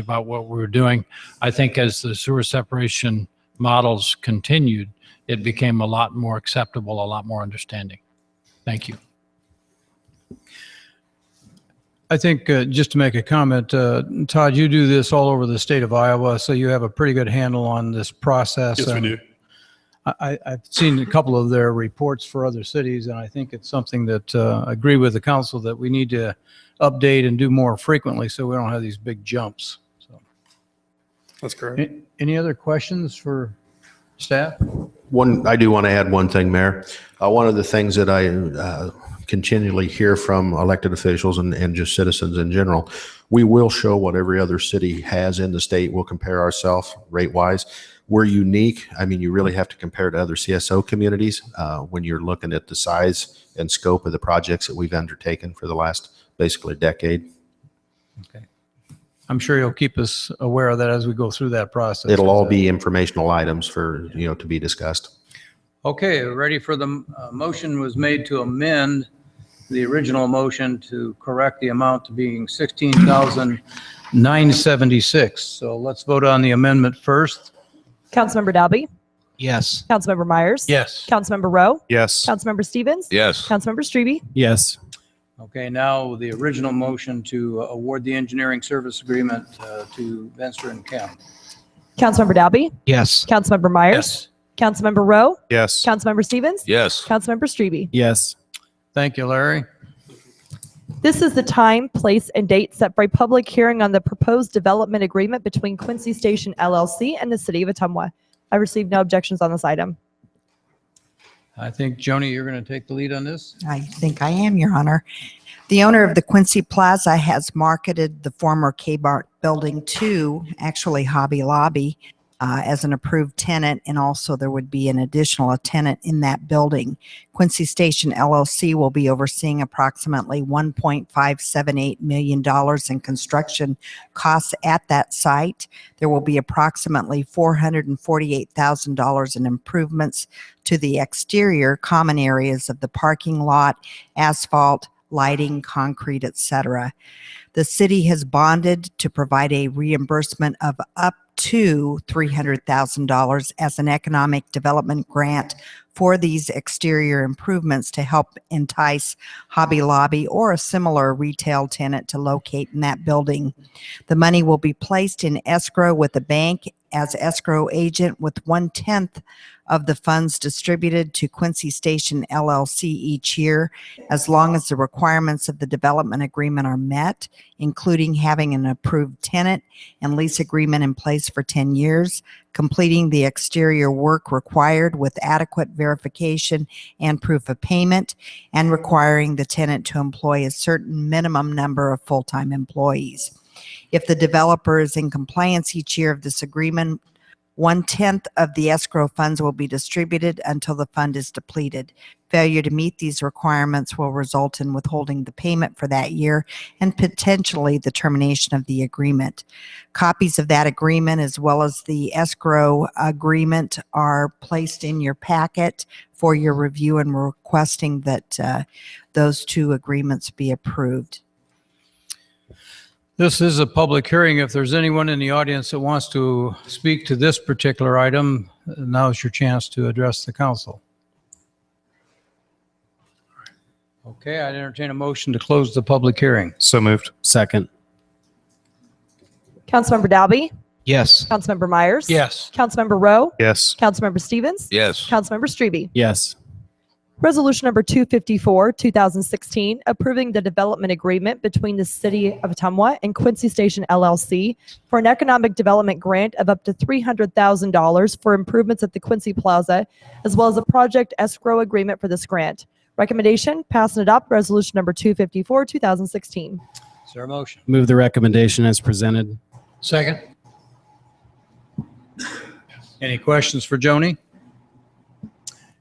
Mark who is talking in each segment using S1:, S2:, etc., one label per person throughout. S1: about what we were doing. I think as the sewer separation models continued, it became a lot more acceptable, a lot more understanding. Thank you.
S2: I think, uh, just to make a comment, uh, Todd, you do this all over the state of Iowa, so you have a pretty good handle on this process.
S3: Yes, we
S2: and
S3: do.
S2: I, I- I've seen a couple of their reports for other cities, and I think it's something that, uh, I agree with the council that we need to update and do more frequently so we don't have these big jumps. So,
S3: That's correct.
S2: a- Any other questions for staff?
S4: One, I do want to add one thing, Mayor. Uh, one of the things that I uh, continually hear from elected officials and, and just citizens in general, we will show what every other city has in the state. We'll compare ourselves rate wise. We're unique. I mean, you really have to compare to other CSO communities uh, when you're looking at the size and scope of the projects that we've undertaken for the last basically decade.
S2: I'm sure you'll keep us aware of that as we go through that process.
S4: It'll all be informational items for, you know, to be discussed.
S2: Okay, ready for the, uh, motion was made to amend the original motion to correct the amount to being 16,976. So let's vote on the amendment first.
S5: Councilmember Dalby,
S2: Yes.
S5: Councilmember Myers.
S2: Yes.
S5: Councilmember Rowe,
S6: Yes.
S5: Councilmember Stevens.
S6: Yes.
S5: Councilmember Strebe,
S6: Yes.
S2: Okay, now the original motion to award the engineering service agreement uh, to Venster and Kemp.
S5: Councilmember Dalby,
S6: Yes.
S5: Councilmember Myers. Councilmember Rowe,
S6: Yes.
S5: Councilmember Stevens.
S6: Yes.
S5: Councilmember Strebe.
S6: Yes.
S2: Thank you, Larry.
S5: This is the time, place, and date set for a public hearing on the proposed development agreement between Quincy Station LLC and the City of Atumwa. I received no objections on this item.
S2: I think, Joni, you're going to take the lead on this?
S7: I think I am, Your Honor. The owner of the Quincy Plaza has marketed the former K-Bart building to actually Hobby Lobby uh, as an approved tenant, and also there would be an additional tenant in that building. Quincy Station LLC will be overseeing approximately $1.578 million in construction costs at that site. There will be approximately $448,000 in improvements to the exterior common areas of the parking lot, asphalt, lighting, concrete, etc. The city has bonded to provide a reimbursement of up to $300,000 as an economic development grant for these exterior improvements to help entice Hobby Lobby or a similar retail tenant to locate in that building. The money will be placed in escrow with the bank as escrow agent with one tenth of the funds distributed to Quincy Station LLC each year, as long as the requirements of the development agreement are met, including having an approved tenant and lease agreement in place for 10 years, completing the exterior work required with adequate verification and proof of payment, and requiring the tenant to employ a certain minimum number of full-time employees. If the developer is in compliance each year of this agreement, one-tenth of the escrow funds will be distributed until the fund is depleted. Failure to meet these requirements will result in withholding the payment for that year and potentially the termination of the agreement. Copies of that agreement, as well as the escrow agreement, are placed in your packet for your review, and we're requesting that uh, those two agreements be approved.
S2: This is a public hearing. If there's anyone in the audience that wants to speak to this particular item, now's your chance to address the council. Okay, I'd entertain a motion to close the public hearing.
S6: So moved. Second.
S5: Councilmember Dalby,
S6: Yes.
S5: Councilmember Myers.
S2: Yes.
S5: Councilmember Rowe,
S6: Yes.
S5: Councilmember Stevens.
S6: Yes.
S5: Councilmember Strebe.
S6: Yes.
S5: Resolution number 254, 2016, approving the development agreement between the City of Atumwa and Quincy Station LLC for an economic development grant of up to $300,000 for improvements at the Quincy Plaza, as well as a project escrow agreement for this grant. Recommendation, pass and adopt resolution number 254, 2016.
S2: Is there a motion?
S8: Move the recommendation as presented.
S1: Second?
S2: Any questions for Joni?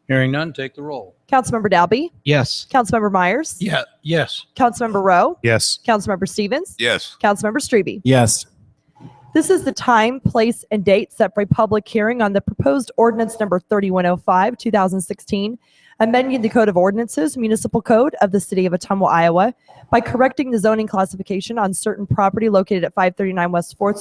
S2: Hearing none, take the roll.
S5: Councilmember Dalby,
S8: Yes.
S5: Councilmember Myers,
S1: Yeah, yes.
S5: Councilmember Rowe,
S6: Yes.
S5: Councilmember Stevens,
S6: Yes.
S5: Councilmember Strebe.
S8: Yes.
S5: This is the time, place, and date set for a public hearing on the proposed ordinance number 3105, 2016, amending the Code of Ordinances, Municipal Code of the City of Atumwa, Iowa, by correcting the zoning classification on certain property located at 539 West Fourth